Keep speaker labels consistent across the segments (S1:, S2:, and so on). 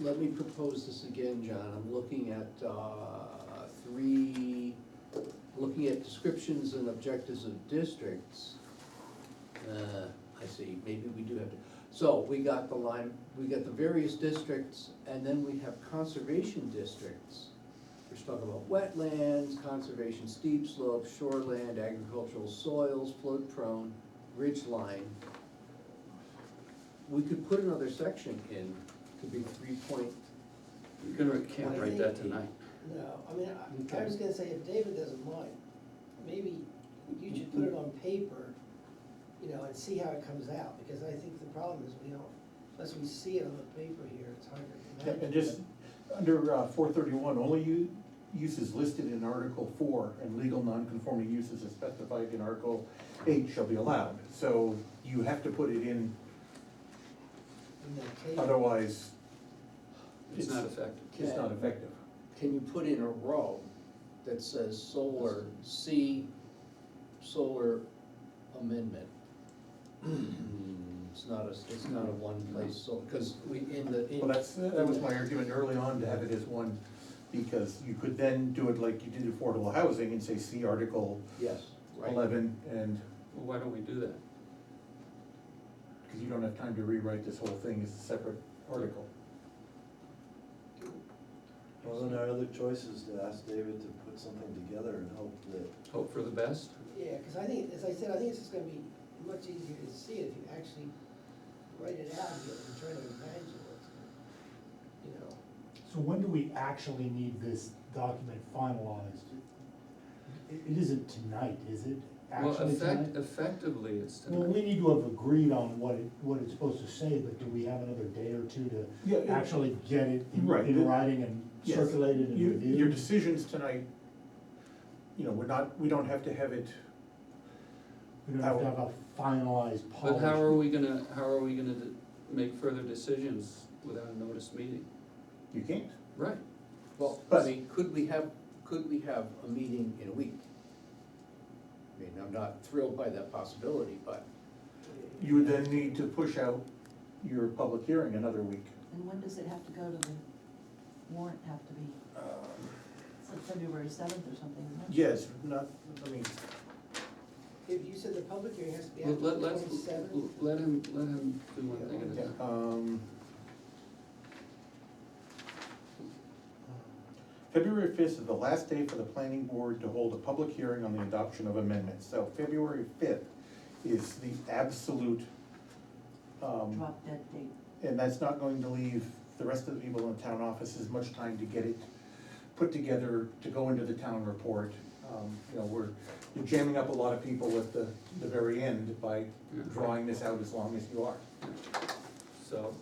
S1: let me propose this again, John. I'm looking at, uh, three, looking at descriptions and objectives of districts. Uh, I see, maybe we do have to, so we got the line, we got the various districts, and then we have conservation districts. We're talking about wetlands, conservation steep slopes, shoreland, agricultural soils, flood prone, ridge line. We could put another section in, could be three point,
S2: You can- can't write that tonight.
S3: No, I mean, I, I
S1: Okay.
S3: was gonna say, if David doesn't mind, maybe you should put it on paper, you know, and see how it comes out, because I think the problem is we don't, unless we see it on the paper here, it's hard to
S4: Yeah,
S3: imagine.
S4: And just, under uh, four thirty-one, only u- uses listed in Article four and legal non-conforming uses as specified in Article eight shall be allowed. So you have to put it in,
S3: In that case.
S4: otherwise
S2: It's not effective.
S4: it's not effective.
S1: can you put in a row that says solar, C, solar amendment? It's not a, it's not a one place, so, because we, in the, in.
S4: Well, that's, that was my argument early on to have it as one, because you could then do it like you did affordable housing and say, see Article
S1: Yes, right.
S4: eleven, and,
S2: Well, Why don't we do that?
S4: because you don't have time to rewrite this whole thing as a separate article.
S5: Well, then our other choice is to ask David to put something together and hope that,
S2: Hope for the best?
S3: Yeah, because I think, as I said, I think it's just gonna be much easier to see it if you actually write it out here and try to imagine what's going, you know.
S6: So when do we actually need this document finalized? It it isn't tonight, is it?
S2: Well,
S6: Actually
S2: effect,
S6: tonight?
S2: effectively, it's
S6: Well, we
S2: tonight.
S6: need to have agreed on what it, what it's supposed to say, but do we have another day or two
S4: Yeah,
S6: to
S4: yeah.
S6: actually get it in-
S4: Right, the-
S6: in writing and
S4: Yes.
S6: circulated and
S4: Your- Your
S6: reviewed?
S4: decisions tonight, you know, we're not, we don't have to have it,
S6: We don't have to have a finalized
S2: But how are
S6: policy.
S2: we gonna, how are we gonna d- make further decisions without a notice meeting?
S4: you can't.
S2: Right,
S1: Well, I
S4: But-
S1: mean, could we have, could we have a meeting in a week? I mean, I'm not thrilled by that possibility, but
S4: You would then need to push out your public hearing another week.
S7: And when does it have to go to the warrant have to be?
S6: Uh,
S7: It's like February seventh or something, isn't it?
S4: Yes, not, I mean,
S3: If you said the public hearing has to be
S2: let,
S3: after
S2: let,
S3: the
S2: let's-
S3: twenty-seventh,
S2: let him, let him do one thing at
S4: yeah,
S2: a time.
S4: um. February fifth is the last day for the planning board to hold a public hearing on the adoption of amendments, so February fifth is the absolute, um,
S7: Drop dead date.
S4: And that's not going to leave the rest of the people in the town office as much time to get it put together, to go into the town report. Um, You know, we're you're jamming up a lot of people at the, the very end by drawing this out as long as you are.
S2: So,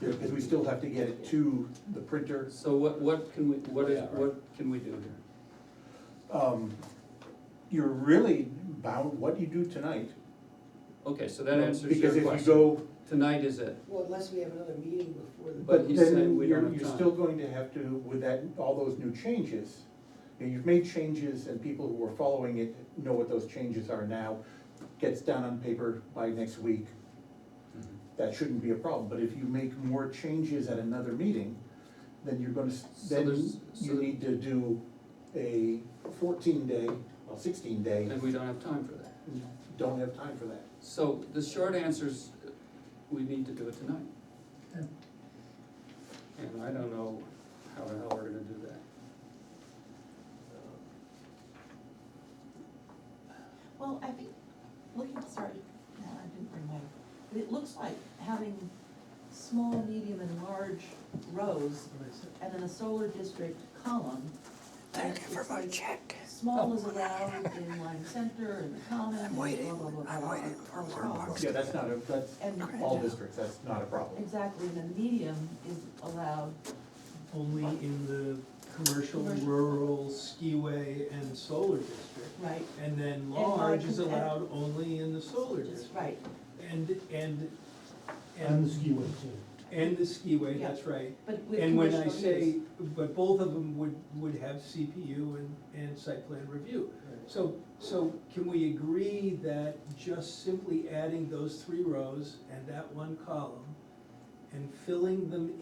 S4: Because we still have to get it to the printers.
S2: so what, what can we, what is,
S1: Yeah, right.
S2: what can we do here?
S4: Um, You're really bound, what you do tonight.
S2: Okay, so that answers your question.
S4: Because if you go,
S2: Tonight is it,
S3: well, unless we have another meeting before the.
S2: But
S4: but
S2: he's saying
S4: then
S2: we don't
S4: you're,
S2: have
S4: you're
S2: time.
S4: still going to have to, with that, all those new changes, you know, you've made changes and people who are following it know what those changes are now, gets down on paper by next week,
S2: Mm-hmm.
S4: that shouldn't be a problem, but if you make more changes at another meeting, then you're gonna, s-
S2: So
S4: then
S2: there's- so-
S4: you need to do a fourteen day, well, sixteen day,
S2: and we don't have time for that.
S4: don't have time for that.
S2: So the short answer is, uh, we need to do it tonight.
S6: Yeah.
S2: And I don't know how the hell we're gonna do that.
S7: Well, I think, looking, sorry, no, I didn't bring my, but it looks like having small, medium, and large rows, and then a solar district column. Thank you for my check. Oh Small is allowed in Lime Center and the Common, and blah, blah, blah, blah. waiting for
S4: Yeah, that's not a, that's
S7: And-
S4: all districts, that's not a problem.
S7: Exactly, and then medium is allowed
S8: Only in the commercial,
S7: Commercial.
S8: rural, skiway and solar district.
S7: Right,
S8: And then
S7: And
S8: large is
S7: large and-
S8: allowed only in the solar
S7: just
S8: district.
S7: right,
S8: And, and,
S6: And the
S8: and,
S6: skiway too.
S8: and the skiway,
S7: Yeah.
S8: that's right.
S7: but with
S8: And when I
S7: conditional
S8: say,
S7: use.
S8: but both of them would, would have CPU and, and site plan review. So, so can we agree that just simply adding those three rows and that one column and filling them